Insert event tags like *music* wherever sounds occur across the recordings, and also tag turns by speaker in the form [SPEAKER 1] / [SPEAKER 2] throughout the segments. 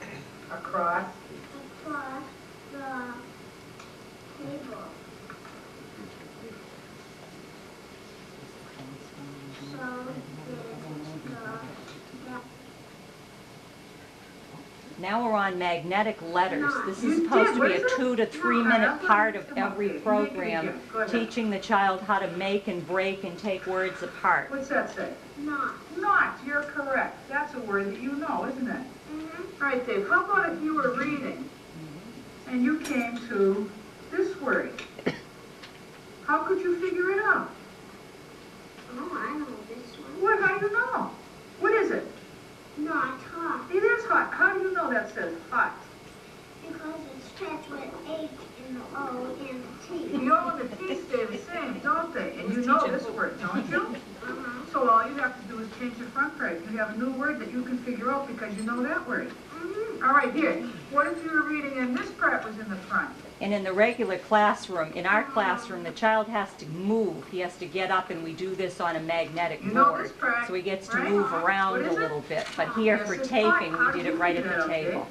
[SPEAKER 1] um,
[SPEAKER 2] across
[SPEAKER 1] across the table. So did the
[SPEAKER 3] Now we're on magnetic letters. This
[SPEAKER 2] You
[SPEAKER 3] is
[SPEAKER 2] did.
[SPEAKER 3] supposed to
[SPEAKER 2] What
[SPEAKER 3] be
[SPEAKER 2] is
[SPEAKER 3] a
[SPEAKER 2] it?
[SPEAKER 3] two to three
[SPEAKER 2] No, I
[SPEAKER 3] minute
[SPEAKER 2] don't
[SPEAKER 3] part of
[SPEAKER 2] think- come on,
[SPEAKER 3] every
[SPEAKER 2] you make it
[SPEAKER 3] program,
[SPEAKER 2] again. Go ahead.
[SPEAKER 3] teaching the child how to make and break and take words apart.
[SPEAKER 2] What's that say?
[SPEAKER 1] not.
[SPEAKER 2] Not, you're correct. That's a word that you know, isn't it?
[SPEAKER 1] Mhm.
[SPEAKER 2] All right, Dave, how about if you were reading and you came to this word? How could you figure it out?
[SPEAKER 1] Oh, I know this one.
[SPEAKER 2] What, how do you know? What is it?
[SPEAKER 1] Not hot
[SPEAKER 2] It is hot. How do you know that says hot?
[SPEAKER 1] because it's stretched with H and the O and the T.
[SPEAKER 2] The O and the T stay the same, don't they? And you know this word, don't you?
[SPEAKER 1] Uh-huh.
[SPEAKER 2] So all you have to do is change the front phrase. You have a new word that you can figure out because you know that word.
[SPEAKER 1] Mhm.
[SPEAKER 2] All right, here. What if you were reading and this part was in the front?
[SPEAKER 3] And in the regular classroom, in our classroom, the child has to move. He has to get up and we do this on a magnetic
[SPEAKER 2] You know
[SPEAKER 3] board.
[SPEAKER 2] this part,
[SPEAKER 3] So he gets to
[SPEAKER 2] right?
[SPEAKER 3] move around
[SPEAKER 2] What
[SPEAKER 3] a
[SPEAKER 2] is it?
[SPEAKER 3] little bit. But here
[SPEAKER 2] Yes,
[SPEAKER 3] for
[SPEAKER 2] it's
[SPEAKER 3] taping,
[SPEAKER 2] fine. How
[SPEAKER 3] we
[SPEAKER 2] do
[SPEAKER 3] did it
[SPEAKER 2] you
[SPEAKER 3] right
[SPEAKER 2] do
[SPEAKER 3] at
[SPEAKER 2] that,
[SPEAKER 3] the
[SPEAKER 2] okay?
[SPEAKER 3] table.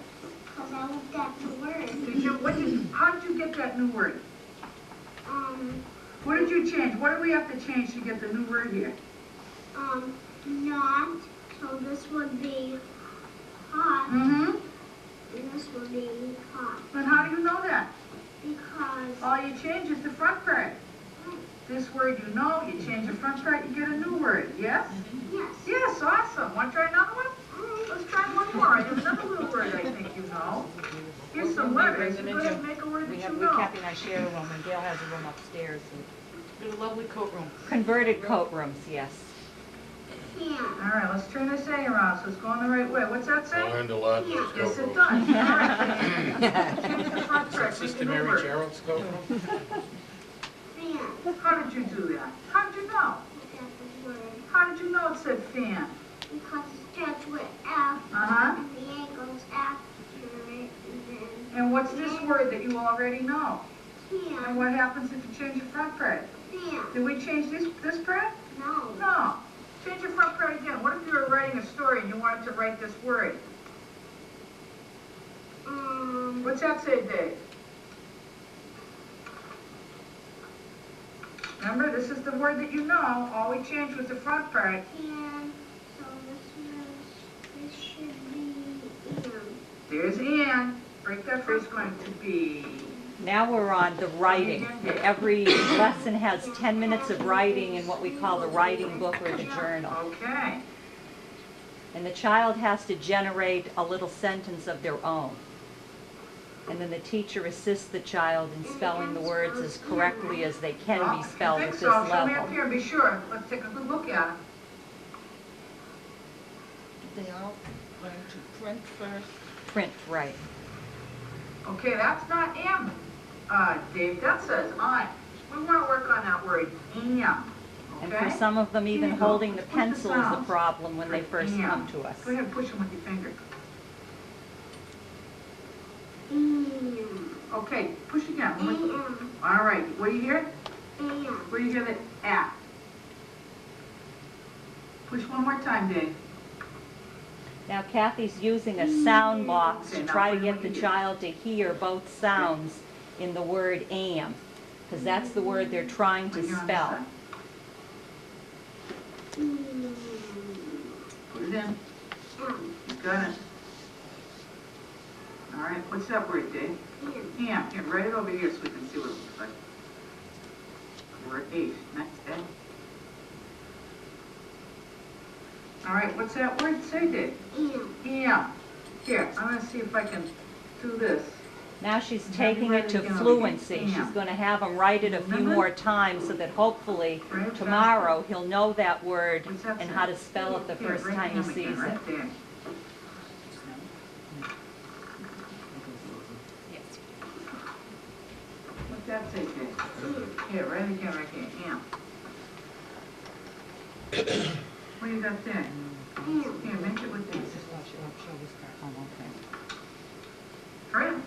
[SPEAKER 1] Because I looked at the word.
[SPEAKER 2] Did you, what did you, how did you get that new word?
[SPEAKER 1] Um,
[SPEAKER 2] What did you change? What do we have to change to get the new word here?
[SPEAKER 1] um, not. So this would be hot
[SPEAKER 2] Mm-hmm.
[SPEAKER 1] and this would be hot
[SPEAKER 2] But how do you know that?
[SPEAKER 1] because um,
[SPEAKER 2] All you change is the front part. This word you know, you change the front part, you get a new word, yes?
[SPEAKER 1] yes.
[SPEAKER 2] Yes, awesome. Want to try another one? Mm, Let's try one more. I have another little word I think you know. Here's some letters. You go ahead and make a word
[SPEAKER 4] We
[SPEAKER 2] that
[SPEAKER 4] have,
[SPEAKER 2] you
[SPEAKER 4] we
[SPEAKER 2] know.
[SPEAKER 4] Kathy and I share a room, and Gail has a room upstairs. and- We have a lovely coat room.
[SPEAKER 3] Converted coat rooms, yes.
[SPEAKER 2] All
[SPEAKER 1] Can.
[SPEAKER 2] right, let's turn this A around so it's going the right way. What's that say?
[SPEAKER 5] Learned a lot in
[SPEAKER 1] Yeah.
[SPEAKER 2] Yes, it does.
[SPEAKER 5] Scarborough.
[SPEAKER 2] All right. Change the front part, make a
[SPEAKER 5] Sister
[SPEAKER 2] new
[SPEAKER 5] Mary
[SPEAKER 2] word.
[SPEAKER 5] Gerald Scarborough?
[SPEAKER 1] Fan.
[SPEAKER 2] How did you do that? How did you know?
[SPEAKER 1] Look at the word.
[SPEAKER 2] How did you know it said fan?
[SPEAKER 1] Because it's stretched with F
[SPEAKER 2] Uh-huh.
[SPEAKER 1] and the A goes after it and
[SPEAKER 2] And what's this word that you already know?
[SPEAKER 1] then
[SPEAKER 2] And
[SPEAKER 1] can.
[SPEAKER 2] what happens if you change the front part?
[SPEAKER 1] Fan.
[SPEAKER 2] Did we change this, this part?
[SPEAKER 1] No.
[SPEAKER 2] No. Change your front part again. What if you were writing a story and you wanted to write this word?
[SPEAKER 1] Um.
[SPEAKER 2] What's that say, Dave? Remember, this is the word that you know. All we changed was the front part.
[SPEAKER 1] Can. So this is. This should be M.
[SPEAKER 2] There's and. Break that phrase going to be.
[SPEAKER 3] Now we're on the writing. Every lesson has 10 minutes of writing in what we call the writing book or the journal.
[SPEAKER 2] Okay.
[SPEAKER 3] And the child has to generate a little sentence of their own. And then the teacher assists the child in spelling the words as correctly as they can
[SPEAKER 2] Well,
[SPEAKER 3] be
[SPEAKER 2] if you
[SPEAKER 3] spelled
[SPEAKER 2] think
[SPEAKER 3] at this
[SPEAKER 2] so, Show me up
[SPEAKER 3] level.
[SPEAKER 2] here and be sure. Let's take a good look at it.
[SPEAKER 6] They all learn to print first.
[SPEAKER 3] Print right.
[SPEAKER 2] Okay, that's not am, uh, Dave. That says I. We want to work on that word am.
[SPEAKER 3] And for
[SPEAKER 2] Okay?
[SPEAKER 3] some of them, even
[SPEAKER 2] Here you go.
[SPEAKER 3] holding the
[SPEAKER 2] Put the
[SPEAKER 3] pencil is a
[SPEAKER 2] sounds.
[SPEAKER 3] problem when they first
[SPEAKER 2] Yeah.
[SPEAKER 3] come to us.
[SPEAKER 2] Go ahead and push them with your finger.
[SPEAKER 1] M.
[SPEAKER 2] Okay, push again. One more-
[SPEAKER 1] A-M.
[SPEAKER 2] All right. What do you hear?
[SPEAKER 1] A-M.
[SPEAKER 2] Where do you hear the at? Push one more time, Dave.
[SPEAKER 3] Now Kathy's using a sound box
[SPEAKER 2] Okay,
[SPEAKER 3] to
[SPEAKER 2] now
[SPEAKER 3] try to
[SPEAKER 2] what do
[SPEAKER 3] get
[SPEAKER 2] we
[SPEAKER 3] the
[SPEAKER 2] do?
[SPEAKER 3] child to hear both sounds in the word am, because that's the word they're trying to
[SPEAKER 2] Right here on this
[SPEAKER 3] spell.
[SPEAKER 2] side.
[SPEAKER 1] M.
[SPEAKER 2] Put it in.
[SPEAKER 1] M.
[SPEAKER 2] You got it. All right. What's that word, Dave?
[SPEAKER 1] M.
[SPEAKER 2] Am. Here, write it over here so we can see what it looks like. Word eight. Next, Dave. All right. What's that word? Say, Dave.
[SPEAKER 1] M.
[SPEAKER 2] Am. Here, I'm gonna see if I can do this.
[SPEAKER 3] Now she's
[SPEAKER 2] Have you
[SPEAKER 3] taking
[SPEAKER 2] read
[SPEAKER 3] it
[SPEAKER 2] it
[SPEAKER 3] to
[SPEAKER 2] again?
[SPEAKER 3] fluency. She's
[SPEAKER 2] Yeah.
[SPEAKER 3] going to have him write it a few
[SPEAKER 2] Remember?
[SPEAKER 3] more times so that hopefully
[SPEAKER 2] Right,
[SPEAKER 3] tomorrow he'll know that word
[SPEAKER 2] What's that
[SPEAKER 3] and
[SPEAKER 2] say?
[SPEAKER 3] how to spell it the
[SPEAKER 2] Here,
[SPEAKER 3] first
[SPEAKER 2] right
[SPEAKER 3] time he
[SPEAKER 2] hand again,
[SPEAKER 3] sees it.
[SPEAKER 2] right there.
[SPEAKER 3] Yes.
[SPEAKER 2] What's that say, Dave? Here, right again, right here, *coughs* am. What you got there?
[SPEAKER 1] M.
[SPEAKER 2] Here, make it with
[SPEAKER 4] Just
[SPEAKER 2] this. Oh,
[SPEAKER 4] watch it up, show this part.
[SPEAKER 2] Hurry up. *coughs*